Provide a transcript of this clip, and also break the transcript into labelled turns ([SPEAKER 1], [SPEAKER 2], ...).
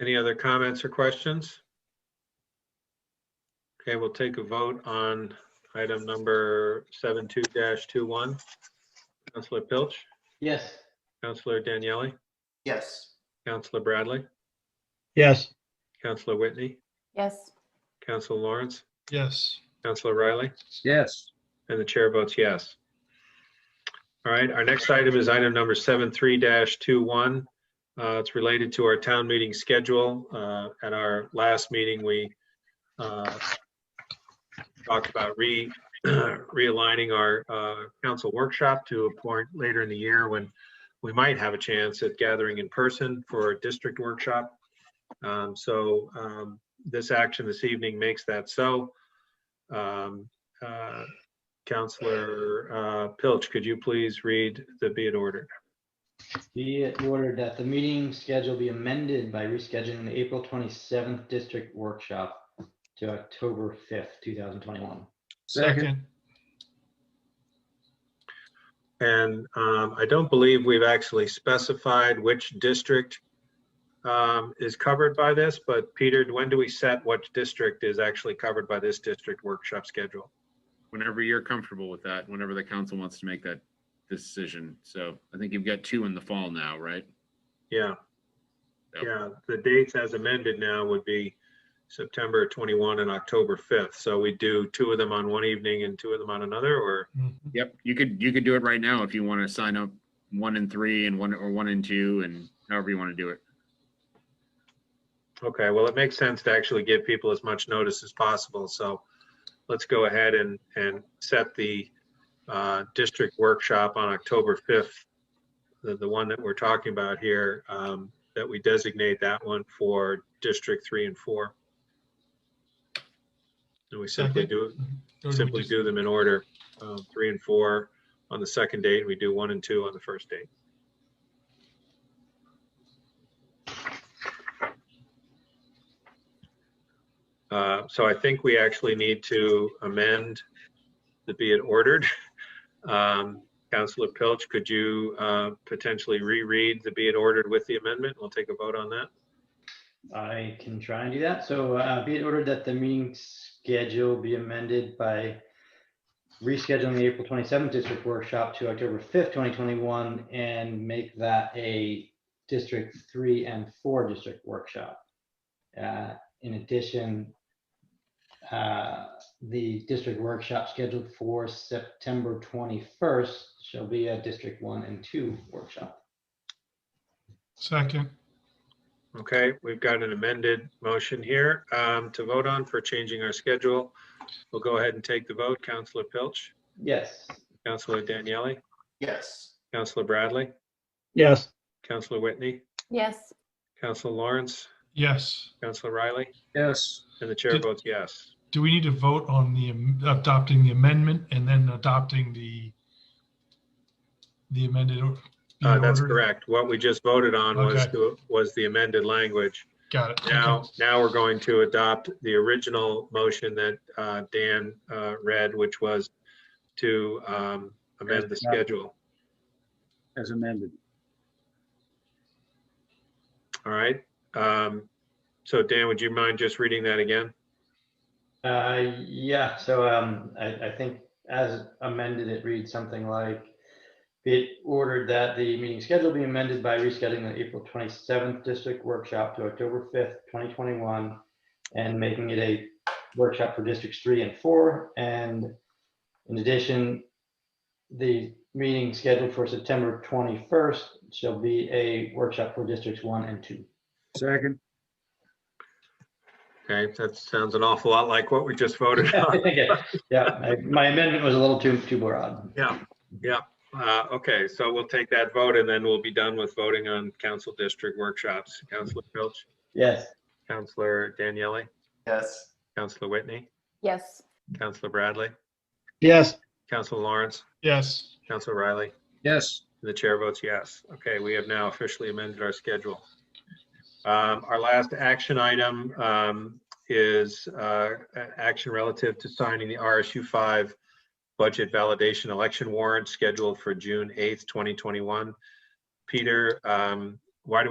[SPEAKER 1] Any other comments or questions? Okay, we'll take a vote on item number 72-21. Counselor Pilch,
[SPEAKER 2] Yes.
[SPEAKER 1] Counselor Daniele,
[SPEAKER 2] Yes.
[SPEAKER 1] Counselor Bradley,
[SPEAKER 3] Yes.
[SPEAKER 1] Counselor Whitney,
[SPEAKER 4] Yes.
[SPEAKER 1] Counselor Lawrence,
[SPEAKER 3] Yes.
[SPEAKER 1] Counselor Riley.
[SPEAKER 5] Yes.
[SPEAKER 1] And the chair votes yes. All right, our next item is item number 73-21. Uh, It's related to our town meeting schedule. Uh, At our last meeting, we uh, talked about re realigning our uh, council workshop to a point later in the year when we might have a chance at gathering in person for a district workshop. Um, So um, this action this evening makes that so. Um, uh, Counselor uh, Pilch, could you please read the be it ordered?
[SPEAKER 2] Be it ordered that the meeting schedule be amended by rescheduling the April twenty-seventh district workshop to October fifth, two thousand twenty-one.
[SPEAKER 5] Second.
[SPEAKER 1] And um, I don't believe we've actually specified which district um, is covered by this, but Peter, when do we set what district is actually covered by this district workshop schedule?
[SPEAKER 6] whenever you're comfortable with that, whenever the council wants to make that decision. So I think you've got two in the fall now, right?
[SPEAKER 1] Yeah.
[SPEAKER 6] Yep.
[SPEAKER 1] Yeah, the dates as amended now would be September 21 and October 5th. So we do two of them on one evening and two of them on another, or?
[SPEAKER 3] Mm-hmm.
[SPEAKER 6] Yep, you could, you could do it right now if you want to sign up one and three and one, or one and two and however you want to do it.
[SPEAKER 1] Okay, well, it makes sense to actually give people as much notice as possible, so let's go ahead and, and set the uh, district workshop on October 5th, the, the one that we're talking about here, um, that we designate that one for District 3 and 4. And we simply do, simply do them in order, um, 3 and 4 on the second date, we do 1 and 2 on the first date. Uh, So I think we actually need to amend the be it ordered. Um, Counselor Pilch, could you uh, potentially reread the be it ordered with the amendment? We'll take a vote on that.
[SPEAKER 2] I can try and do that. So uh, be it ordered that the meeting schedule be amended by rescheduling the April twenty-seventh district workshop to October fifth, twenty twenty-one, and make that a District Three and Four district workshop. Uh, In addition, uh, the district workshop scheduled for September twenty-first shall be a District One and Two workshop.
[SPEAKER 3] Second.
[SPEAKER 1] Okay, we've got an amended motion here um, to vote on for changing our schedule. We'll go ahead and take the vote. Counselor Pilch,
[SPEAKER 2] Yes.
[SPEAKER 1] Counselor Daniele,
[SPEAKER 2] Yes.
[SPEAKER 1] Counselor Bradley,
[SPEAKER 3] Yes.
[SPEAKER 1] Counselor Whitney,
[SPEAKER 4] Yes.
[SPEAKER 1] Counselor Lawrence,
[SPEAKER 3] Yes.
[SPEAKER 1] Counselor Riley,
[SPEAKER 5] Yes.
[SPEAKER 1] and the chair
[SPEAKER 3] Did-
[SPEAKER 1] votes yes.
[SPEAKER 3] Do we need to vote on the am- adopting the amendment and then adopting the the amended? or- the
[SPEAKER 1] Uh, That's
[SPEAKER 3] order?
[SPEAKER 1] correct. What we just voted on was,
[SPEAKER 3] Okay.
[SPEAKER 1] to- was the amended language.
[SPEAKER 3] Got it.
[SPEAKER 1] Now,
[SPEAKER 3] Okay.
[SPEAKER 1] now we're going to adopt the original motion that uh, Dan uh, read, which was to um, amend the schedule.
[SPEAKER 5] As amended.
[SPEAKER 1] All right? Um, So Dan, would you mind just reading that again?
[SPEAKER 2] Uh, yeah, so, um, I, I think as amended, it reads something like, be it ordered that the meeting schedule be amended by rescheduling the April twenty-seventh district workshop to October fifth, twenty twenty-one, and making it a workshop for districts three and four, and in addition, the meeting scheduled for September twenty-first shall be a workshop for districts one and two.
[SPEAKER 5] Second.
[SPEAKER 1] Okay, that sounds an awful lot like what we just voted on.
[SPEAKER 2] Yeah, I- my amendment was a little too, too broad.
[SPEAKER 1] Yeah, yeah. Uh, Okay, so we'll take that vote and then we'll be done with voting on council district workshops. Counselor Filch,
[SPEAKER 2] Yes.
[SPEAKER 1] Counselor Daniele,
[SPEAKER 2] Yes.
[SPEAKER 1] Counselor Whitney?
[SPEAKER 4] Yes.
[SPEAKER 1] Counselor Bradley,
[SPEAKER 3] Yes.
[SPEAKER 1] Counselor Lawrence,
[SPEAKER 3] Yes.
[SPEAKER 1] Counselor Riley,
[SPEAKER 5] Yes.
[SPEAKER 1] and the chair votes yes. Okay, we have now officially amended our schedule. Um, Our last action item um, is uh, a- action relative to signing the RSU 5 budget validation election warrant scheduled for June 8th, 2021. Peter, um, why do we?